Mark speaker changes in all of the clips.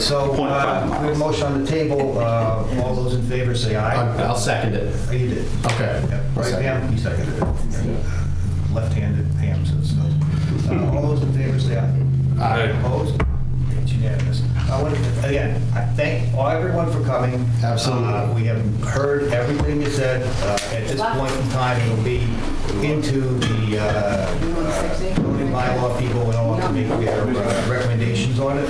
Speaker 1: so
Speaker 2: Point five
Speaker 1: uh, we have a motion on the table. Uh, All those in favor say aye.
Speaker 3: I'll second it.
Speaker 1: Oh, You did.
Speaker 3: Okay.
Speaker 1: Yeah, Right,
Speaker 3: Second.
Speaker 1: Pam? You seconded it. Left-handed Pam says so. Uh, All those in favor say aye.
Speaker 3: Aye.
Speaker 1: Opposed? It's unanimous. I want to, again, I thank all- everyone for coming.
Speaker 3: Absolutely.
Speaker 1: Uh, We have heard everything you said. Uh, At this point in time, it'll be into the uh, uh, zoning bylaw people and all to make their uh, recommendations on it.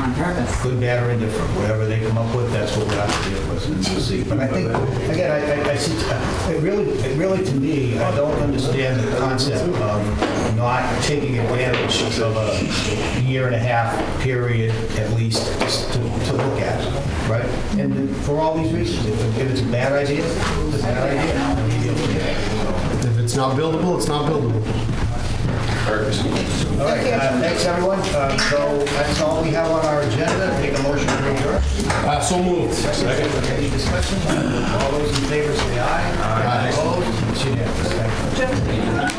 Speaker 4: on purpose.
Speaker 1: Good, bad, or indifferent, whatever they come up with, that's what we'll have to deal with and we'll see. But I think, again, I, I- I see, it really, it really, to me, I don't understand the concept of not taking advantage of a year and a half period at least to, to look at, right? And for all these reasons, if if it's a bad idea, it's a bad idea.
Speaker 3: If it's not buildable, it's not buildable.
Speaker 1: All right, uh, thanks, everyone. Uh, So that's all we have on our agenda. Take a motion to adjourn.
Speaker 3: Uh, so moved.
Speaker 1: Any discussion? All those in favor say aye. Aye. Opposed? It's unanimous. Thank you.